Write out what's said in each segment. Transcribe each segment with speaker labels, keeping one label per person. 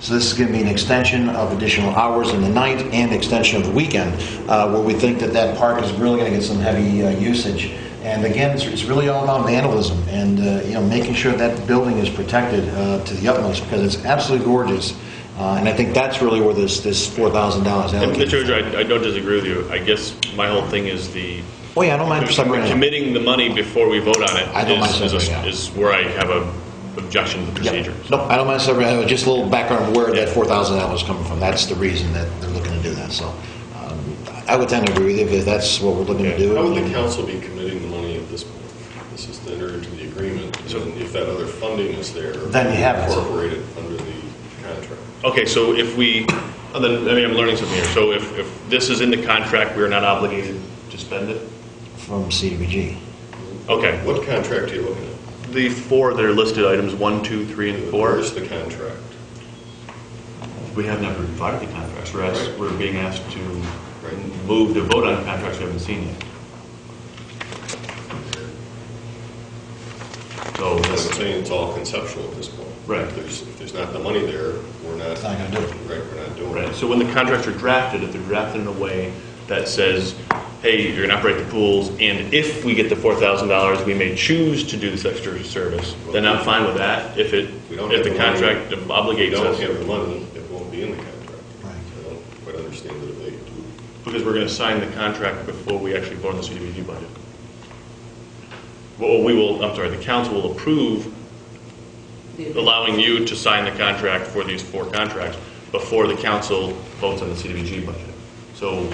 Speaker 1: So this is going to be an extension of additional hours in the night and extension of the weekend, uh, where we think that that park is really going to get some heavy uh, usage. And again, it's, it's really all about vandalism and uh, you know making sure that building is protected uh, to the utmost because it's absolutely gorgeous. Uh, and I think that's really where this this four thousand dollars
Speaker 2: And Mr.
Speaker 1: allocated.
Speaker 2: Oger, I, I don't disagree with you. I guess my whole thing is the
Speaker 1: Oh yeah, I don't mind for some reason.
Speaker 2: committing the money before we vote on it
Speaker 1: I don't
Speaker 2: is,
Speaker 1: mind
Speaker 2: is, a,
Speaker 1: separating out.
Speaker 2: is where I have a objection to the
Speaker 1: Yeah.
Speaker 2: procedure.
Speaker 1: No, I don't mind separating. Just a little background of where that four thousand dollars is coming from. That's the reason that they're looking to do that. So um, I would tend to agree with you if that's what we're looking to do.
Speaker 3: How would the council be committing the money at this point? This is to enter into the agreement, and then if that other funding is there.
Speaker 1: Then you have it.
Speaker 3: Incorporate it under the contract.
Speaker 2: Okay, so if we, oh, then, I mean, I'm learning something here. So if, if this is in the contract, we're not obligated to spend it?
Speaker 1: from CDBG.
Speaker 2: Okay.
Speaker 3: What contract are you looking at?
Speaker 2: The four that are listed, items one, two, three, and four,
Speaker 3: Where's the contract?
Speaker 2: we have not provided the contracts. We're asked, we're being asked to
Speaker 3: Right.
Speaker 2: move to vote on contracts we haven't seen yet. So
Speaker 3: That's
Speaker 2: that's,
Speaker 3: what I'm saying, it's all conceptual at this point.
Speaker 2: Right.
Speaker 3: If there's, if there's not the money there, we're not.
Speaker 1: It's not gonna do it.
Speaker 3: Right, we're not doing
Speaker 2: Right,
Speaker 3: it.
Speaker 2: so when the contracts are drafted, if they're drafted in a way that says, hey, you're gonna operate the pools, and if we get the four thousand dollars, we may choose to do this extra service, then I'm fine with that, if it,
Speaker 3: We don't
Speaker 2: if
Speaker 3: have
Speaker 2: the
Speaker 3: the money.
Speaker 2: contract
Speaker 3: If
Speaker 2: obligates
Speaker 3: you don't
Speaker 2: us.
Speaker 3: have the money, it won't be in the contract.
Speaker 1: Right.
Speaker 3: I don't quite understand the debate.
Speaker 2: Because we're gonna sign the contract before we actually vote on the CDBG budget. Well, we will, I'm sorry, the council will approve allowing you to sign the contract for these four contracts before the council votes on the CDBG budget. So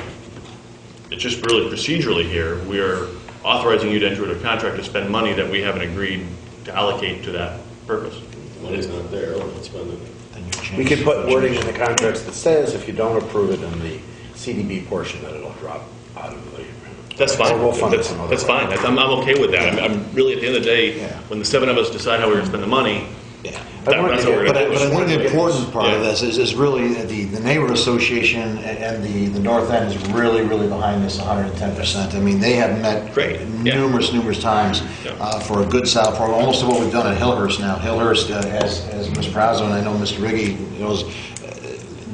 Speaker 2: it's just really procedurally here, we are authorizing you to enter into a contract to spend money that we haven't agreed to allocate to that purpose.
Speaker 3: If the money's not there, we're not spending it.
Speaker 1: Then you change-
Speaker 4: We could put wording in the contracts that says if you don't approve it in the CDB portion, that it'll drop out of the agreement.
Speaker 2: That's fine.
Speaker 4: Or we'll fund it
Speaker 2: That's-
Speaker 4: some other
Speaker 2: That's
Speaker 4: way.
Speaker 2: fine. That's- I'm, I'm okay with that. I'm- I'm really, at the end of the day,
Speaker 1: Yeah.
Speaker 2: when the seven of us decide how we're gonna spend the money,
Speaker 1: Yeah.
Speaker 2: That- that's what we're
Speaker 1: But I,
Speaker 2: gonna
Speaker 1: but I
Speaker 2: do.
Speaker 1: think the important part of
Speaker 2: Yeah.
Speaker 1: this is, is really that the, the neighborhood association a- and the, the north end is really, really behind this 110%. I mean, they have met
Speaker 2: Great, yeah.
Speaker 1: numerous, numerous times
Speaker 2: Yeah.
Speaker 1: uh, for a good solid program, almost to what we've done at Hillhurst now. Hillhurst, uh, as, as Ms. Brazo and I know Mr. Riggi knows, uh,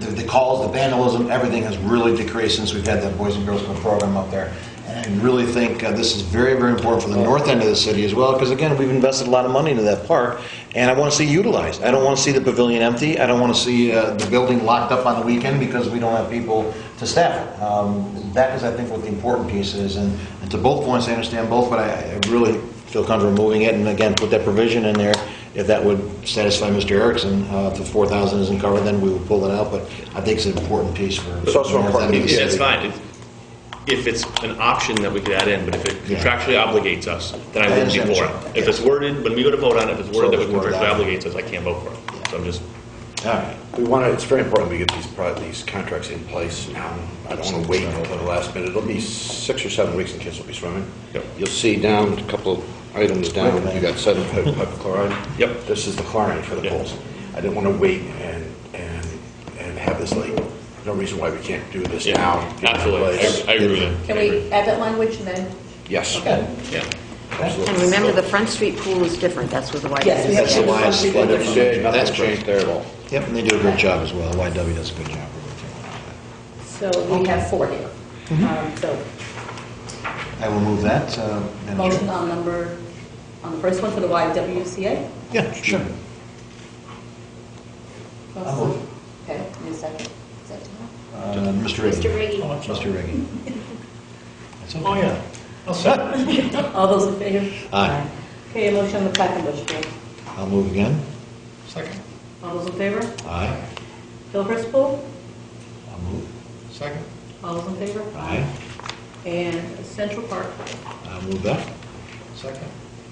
Speaker 1: the, the calls, the vandalism, everything has really decreased since we've had that Boys and Girls Club program up there. And I really think uh, this is very, very important for the north end of the city as well, because again, we've invested a lot of money into that park, and I want to see it utilized. I don't want to see the pavilion empty. I don't want to see uh, the building locked up on the weekend because we don't have people to staff it. Um, that is, I think, what the important piece is. And, and to both points, I understand both, but I, I really feel comfortable moving it. And again, put that provision in there if that would satisfy Mr. Erickson. Uh, if the 4,000 isn't covered, then we will pull it out. But I think it's an important piece for.
Speaker 4: It's also important.
Speaker 1: Yeah.
Speaker 2: That's fine. If- If it's an option that we could add in, but if it
Speaker 1: Yeah.
Speaker 2: contractually obligates us, then I
Speaker 1: I
Speaker 2: wouldn't be
Speaker 1: understand
Speaker 2: for
Speaker 1: what
Speaker 2: it.
Speaker 1: you're-
Speaker 2: If it's worded, when we go to vote on it, if it's worded
Speaker 1: So
Speaker 2: that it
Speaker 1: it's worded
Speaker 2: contractually
Speaker 1: out.
Speaker 2: obligates us, I can't vote for it. So I'm just,
Speaker 1: All right.
Speaker 4: We want to, it's very important we get these, pro- these contracts in place now. I don't want to wait until the last minute. It'll be six or seven weeks and kids will be swimming.
Speaker 2: Yep.
Speaker 4: You'll see down, a couple of items down, you got sodium hy- hypochlorite.
Speaker 2: Yep.
Speaker 4: This is the chlorine for the
Speaker 2: Yep.
Speaker 4: pools. I didn't want to wait and, and, and have this late. No reason why we can't do this now.
Speaker 2: yeah,
Speaker 4: get it in
Speaker 2: absolutely.
Speaker 4: place.
Speaker 2: I- I agree with that.
Speaker 5: Can we add that language and then?
Speaker 4: Yes.
Speaker 5: Okay.
Speaker 2: Yeah.
Speaker 4: Absolutely.
Speaker 6: And remember, the Front Street pool is different, that's where the white
Speaker 5: Yes, we
Speaker 6: is.
Speaker 5: have
Speaker 1: That's the why it's
Speaker 5: something
Speaker 1: flooded.
Speaker 5: different.
Speaker 4: Shade,
Speaker 1: That's
Speaker 4: Nothing
Speaker 1: great.
Speaker 4: changed there at all.
Speaker 1: Yep, and they do a great job as well. YW does a good job.
Speaker 5: So we have four here.
Speaker 1: Mm-hmm.
Speaker 5: Um, So
Speaker 1: I will move that. uh, Madam Chair.
Speaker 5: motion on number, on the first one for the YWCA?
Speaker 1: Yeah, sure. I'll move.
Speaker 5: Okay, need a second? Is that too much?
Speaker 1: Uh, Mr. Riggi.
Speaker 6: Mr. Riggi.
Speaker 1: Mr. Riggi. That's okay.
Speaker 7: Oh, yeah. I'll second.
Speaker 5: All those in favor?
Speaker 1: Aye.
Speaker 5: Okay, a motion on the second motion, please.
Speaker 1: I'll move again.
Speaker 7: Second.
Speaker 5: All those in favor?
Speaker 1: Aye.
Speaker 5: Hillhurst pool?
Speaker 1: I'll move.
Speaker 7: Second.
Speaker 5: All those in favor?
Speaker 1: Aye.
Speaker 5: And Central Park?
Speaker 1: I'll move that.
Speaker 7: Second.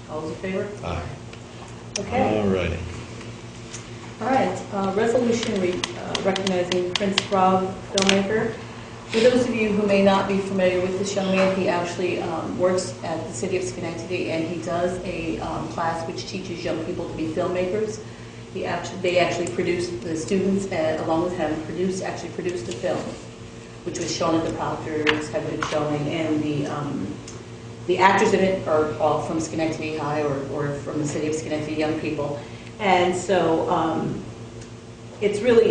Speaker 5: All those in favor?
Speaker 1: Aye.
Speaker 5: Okay.
Speaker 1: All righty.
Speaker 5: All right, uh, resolution re- uh, recognizing Prince Rob filmmaker. For those of you who may not be familiar with this young man, he actually um, works at the city of Schenectady, and he does a um, class which teaches young people to be filmmakers. He actually, they actually produced, the students uh, along with him produced, actually produced a film, which was shown at the Proctors, had been showing, and the um, the actors in it are all from Schenectady High or, or from the city of Schenectady, young people. And so um, it's really,